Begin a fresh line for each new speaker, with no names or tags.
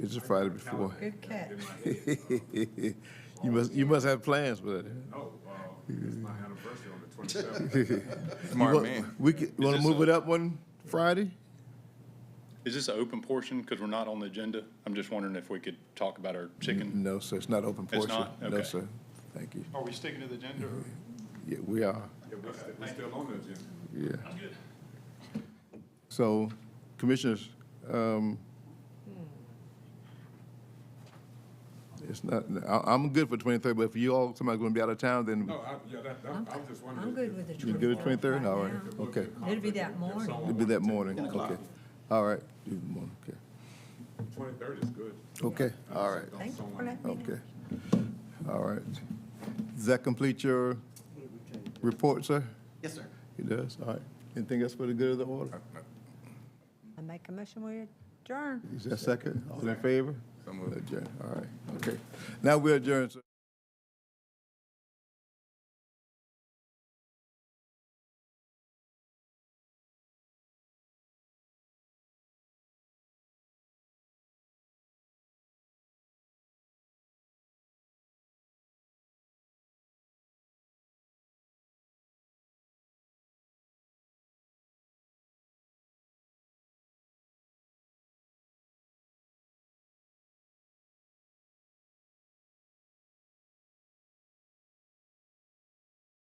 It's a Friday before.
Good catch.
You must, you must have plans for that.
No, uh, it's my anniversary on the twenty-seventh.
You
Smart
wa-
man.
We could, wanna
this
move
a-
it up one Friday?
Is this an open portion? Because we're not on the agenda. I'm just wondering if we could talk about our chicken.
No, sir, it's not open
It's
portion.
not?
No,
Okay.
sir. Thank you.
Are we sticking to the agenda?
Yeah, we are,
Yeah, we're still, we're still on the agenda.
yeah. So, commissioners, um, it's not, I, I'm good for twenty-third, but if you all, somebody's gonna be out of town, then
No, I, yeah, that, that, I was just wondering.
I'm good with the
you
23rd.
good at twenty-third? All right, okay.
It'll be that morning.
It'll be that morning, okay. All right, do the morning, okay.
Twenty-third is good.
Okay, all right.
Thank you for letting me know.
Okay. All right. Does that complete your report, sir?
Yes, sir.
It does, all right. Anything else for the good of the order?
I make a motion, we adjourn.
Is that second? All in favor?
So moved.
Adjourn, all right, okay. Now we adjourn, sir.